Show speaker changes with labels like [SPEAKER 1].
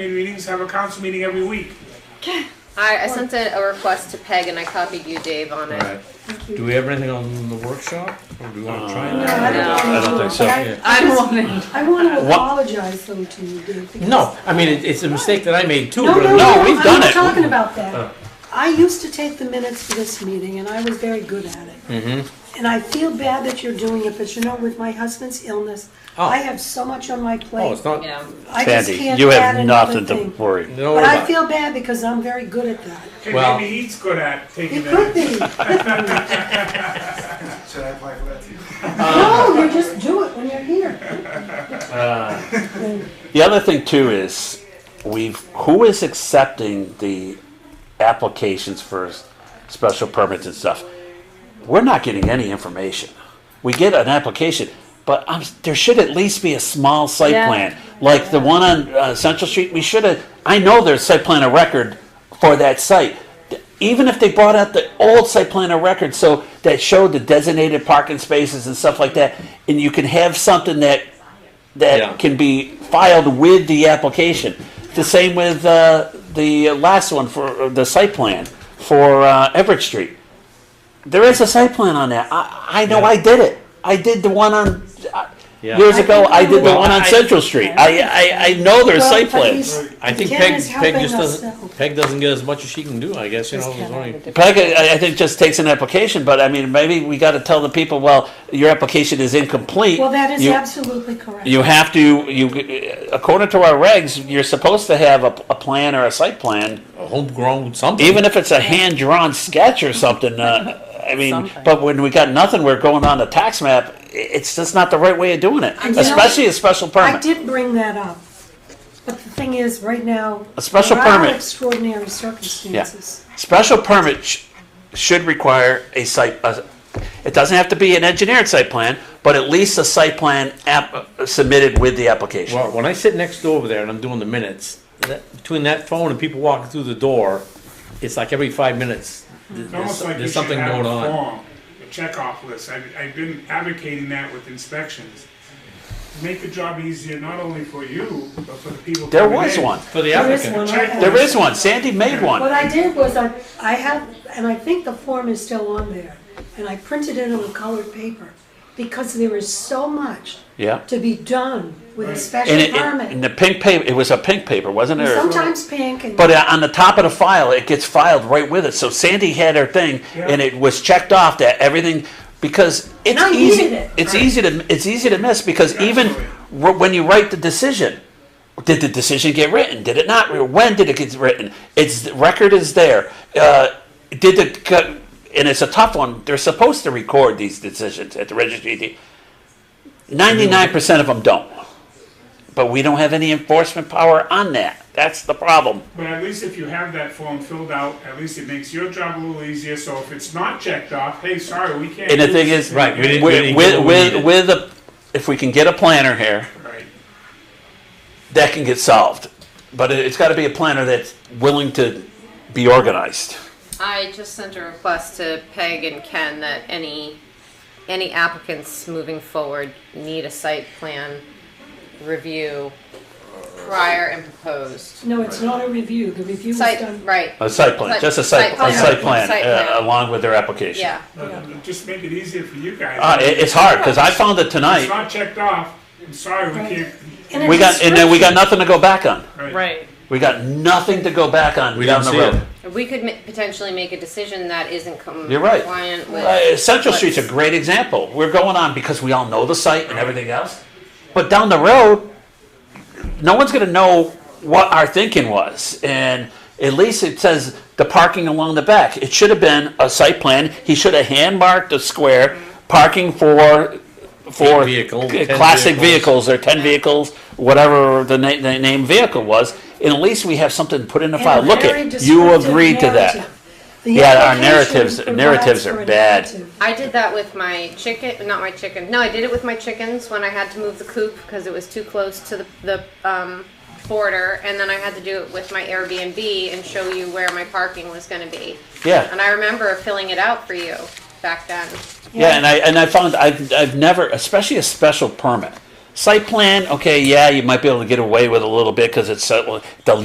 [SPEAKER 1] meetings, have a council meeting every week.
[SPEAKER 2] I, I sent a a request to Peg and I copied you, Dave, on it.
[SPEAKER 3] Alright, do we have anything on the workshop, or do we wanna try
[SPEAKER 4] No,
[SPEAKER 3] that?
[SPEAKER 4] I don't-
[SPEAKER 2] No.
[SPEAKER 4] I don't think so.
[SPEAKER 5] I'm wanting.
[SPEAKER 4] I want to
[SPEAKER 6] What?
[SPEAKER 4] apologize though to you, Dave. because-
[SPEAKER 6] No, I mean, it- it's a mistake that I made too,
[SPEAKER 4] No,
[SPEAKER 6] but
[SPEAKER 4] no,
[SPEAKER 6] no,
[SPEAKER 4] no,
[SPEAKER 6] we've
[SPEAKER 4] I'm
[SPEAKER 6] done
[SPEAKER 4] not
[SPEAKER 6] it.
[SPEAKER 4] talking about
[SPEAKER 6] Oh.
[SPEAKER 4] that. I used to take the minutes for this meeting and I was very good at it.
[SPEAKER 6] Mhm.
[SPEAKER 4] And I feel bad that you're doing it, but you know, with my husband's illness,
[SPEAKER 6] Oh.
[SPEAKER 4] I have so much on my
[SPEAKER 6] Oh,
[SPEAKER 4] plate.
[SPEAKER 6] it's not,
[SPEAKER 2] Yeah.
[SPEAKER 4] I just
[SPEAKER 7] Sandy,
[SPEAKER 4] can't
[SPEAKER 7] you
[SPEAKER 4] add
[SPEAKER 7] have
[SPEAKER 4] another
[SPEAKER 7] nothing to
[SPEAKER 4] thing.
[SPEAKER 7] worry.
[SPEAKER 6] don't worry
[SPEAKER 4] But I
[SPEAKER 6] about it.
[SPEAKER 4] feel bad because I'm very good at that.
[SPEAKER 1] Okay,
[SPEAKER 6] Well-
[SPEAKER 1] maybe he's good at taking
[SPEAKER 4] You could
[SPEAKER 1] that.
[SPEAKER 4] be.
[SPEAKER 8] Should I apply for that too?
[SPEAKER 4] No, you just do it when you're here.
[SPEAKER 7] The other thing too is we've who is accepting the applications for special permits and stuff. We're not getting any information. We get an application, but i there should at least be a small site
[SPEAKER 2] Yeah.
[SPEAKER 7] plan, like the one on uh, Central Street. We should have. I know there's site plan of record for that site. Even if they brought out the old site plan of record, so that showed the designated parking spaces and stuff like that, and you can have something that that
[SPEAKER 6] Yeah.
[SPEAKER 7] can be filed with the application. The same with uh, the last one for uh, the site plan for uh, Everett Street. There is a site plan on that. I, I know I did it. I did the one on uh,
[SPEAKER 6] Yeah.
[SPEAKER 7] years ago. I did the
[SPEAKER 6] Well,
[SPEAKER 7] one on
[SPEAKER 6] I-
[SPEAKER 7] Central Street. I, I, I know there's
[SPEAKER 4] Well,
[SPEAKER 7] site
[SPEAKER 4] but
[SPEAKER 7] plans.
[SPEAKER 4] he's-
[SPEAKER 6] I think
[SPEAKER 4] Ken
[SPEAKER 6] Peg,
[SPEAKER 4] is
[SPEAKER 6] Peg
[SPEAKER 4] helping
[SPEAKER 6] just
[SPEAKER 4] us though.
[SPEAKER 6] doesn't, Peg doesn't get as much as she can do, I guess, you know, there's only.
[SPEAKER 7] But I, I think it just takes an application. But I mean, maybe we got to tell the people, well, your application is incomplete.
[SPEAKER 4] Well, that is
[SPEAKER 7] You-
[SPEAKER 4] absolutely correct.
[SPEAKER 7] You have to, you, according to our regs, you're supposed to have a, a plan or a site plan,
[SPEAKER 6] a homegrown something.
[SPEAKER 7] even if it's a hand-drawn sketch or something, uh, I mean, but when we got nothing, we're going on the tax map, i- it's just not the right way of doing it,
[SPEAKER 4] And you know-
[SPEAKER 7] especially a special
[SPEAKER 4] I
[SPEAKER 7] permit.
[SPEAKER 4] did bring that up, but the thing is, right now.
[SPEAKER 7] A special
[SPEAKER 4] there are
[SPEAKER 7] permit.
[SPEAKER 4] Extraordinary circumstances.
[SPEAKER 7] Special permit sh- should require a site, a- it doesn't have to be an engineered site plan, but at least a site plan app, uh, submitted with the application.
[SPEAKER 6] Well, when I sit next door over there and I'm doing the minutes, that, between that phone and people walking through the door, it's like every five minutes, th-
[SPEAKER 1] It's almost
[SPEAKER 6] there's,
[SPEAKER 1] like you
[SPEAKER 6] there's
[SPEAKER 1] should
[SPEAKER 6] something
[SPEAKER 1] have
[SPEAKER 6] going
[SPEAKER 1] a
[SPEAKER 6] on.
[SPEAKER 1] form, a checkoff list. I've, I've been advocating that with inspections. Make the job easier, not only for you, but for the people
[SPEAKER 7] There
[SPEAKER 1] coming
[SPEAKER 7] was
[SPEAKER 1] in.
[SPEAKER 7] one,
[SPEAKER 6] For the
[SPEAKER 4] There is
[SPEAKER 6] applicant,
[SPEAKER 4] one. I have.
[SPEAKER 7] there is one, Sandy made one.
[SPEAKER 4] What I did was I, I have, and I think the form is still on there, and I printed it on colored paper, because there is so much
[SPEAKER 7] Yeah.
[SPEAKER 4] to be done with a
[SPEAKER 7] And,
[SPEAKER 4] special
[SPEAKER 7] it, it, and
[SPEAKER 4] permit.
[SPEAKER 7] the pink paper, it was a pink paper, wasn't it? Or-
[SPEAKER 4] Sometimes pink and.
[SPEAKER 7] But uh, on the top of the file, it gets filed right with it. So Sandy had her thing, and
[SPEAKER 1] Yeah.
[SPEAKER 7] it was checked off that everything because it's
[SPEAKER 4] I
[SPEAKER 7] easy.
[SPEAKER 4] needed it.
[SPEAKER 7] It's easy to it's easy to miss because even
[SPEAKER 1] Absolutely.
[SPEAKER 7] r- when you write the decision, did the decision get written? Did it not? When did it get written? Its the record is there. Uh, did the co- and it's a tough one. They're supposed to record these decisions at the registry. Ninety nine percent of them don't. But we don't have any enforcement power on that. That's the problem.
[SPEAKER 1] But at least if you have that form filled out, at least it makes your job a little easier. So if it's not checked off, hey, sorry, we can't.
[SPEAKER 7] And the
[SPEAKER 1] do
[SPEAKER 7] thing
[SPEAKER 1] this.
[SPEAKER 7] is,
[SPEAKER 6] Right, we didn't-
[SPEAKER 7] with,
[SPEAKER 6] get
[SPEAKER 7] with,
[SPEAKER 6] what we
[SPEAKER 7] with,
[SPEAKER 6] needed.
[SPEAKER 7] with a, if we can get a planner here,
[SPEAKER 1] Right.
[SPEAKER 7] that can get solved. But it- it's gotta be a planner that's willing to be organized.
[SPEAKER 2] I just sent a request to Peg and Ken that any, any applicants moving forward need a site plan review prior and proposed.
[SPEAKER 4] No, it's not a review, the review is
[SPEAKER 2] Site,
[SPEAKER 4] done.
[SPEAKER 2] right,
[SPEAKER 7] A site plan, just a site, a site plan, uh, along with their application.
[SPEAKER 2] yeah.
[SPEAKER 1] Just make it easier for you guys.
[SPEAKER 7] Uh, it, it's hard, cause I found it
[SPEAKER 1] It's
[SPEAKER 7] tonight.
[SPEAKER 1] not checked off. I'm sorry, we can't.
[SPEAKER 4] And a
[SPEAKER 7] We got, and then we got
[SPEAKER 4] description.
[SPEAKER 7] nothing to go back on.
[SPEAKER 5] Right.
[SPEAKER 7] We got nothing to go back on
[SPEAKER 6] We
[SPEAKER 7] down
[SPEAKER 6] didn't
[SPEAKER 7] the
[SPEAKER 6] see it.
[SPEAKER 7] road.
[SPEAKER 2] We could ma- potentially make a decision that isn't com-
[SPEAKER 7] You're right.
[SPEAKER 2] compliant
[SPEAKER 7] Uh,
[SPEAKER 2] with.
[SPEAKER 7] Central
[SPEAKER 2] But-
[SPEAKER 7] Street's a great example. We're going on because we all know the site and everything else. But down the road, no one's going to know what our thinking was. And at least it says the parking along the back. It should have been a site plan. He should have hand marked a square parking for for
[SPEAKER 6] Eight vehicle,
[SPEAKER 7] c-
[SPEAKER 6] 10
[SPEAKER 7] classic
[SPEAKER 6] vehicles.
[SPEAKER 7] vehicles. or 10 vehicles, whatever the, na- the name vehicle was. And at least we have something put in the
[SPEAKER 4] And a
[SPEAKER 7] file. Look
[SPEAKER 4] very
[SPEAKER 7] at you
[SPEAKER 4] descriptive
[SPEAKER 7] agreed to that.
[SPEAKER 4] narrative. The
[SPEAKER 7] Yeah, our
[SPEAKER 4] application
[SPEAKER 7] narratives-
[SPEAKER 4] provides
[SPEAKER 7] narratives
[SPEAKER 4] for
[SPEAKER 7] are
[SPEAKER 4] a
[SPEAKER 7] bad.
[SPEAKER 4] narrative.
[SPEAKER 2] I did that with my chicken, not my chicken. No, I did it with my chickens when I had to move the coop because it was too close to the, the um, border. And then I had to do it with my Airbnb and show you where my parking was going to be.
[SPEAKER 7] Yeah.
[SPEAKER 2] And I remember filling it out for you back then.
[SPEAKER 7] Yeah, and I and I found I've I've never, especially a special permit. Site plan, okay, yeah, you might be able to get away with a little bit because it's, uh, the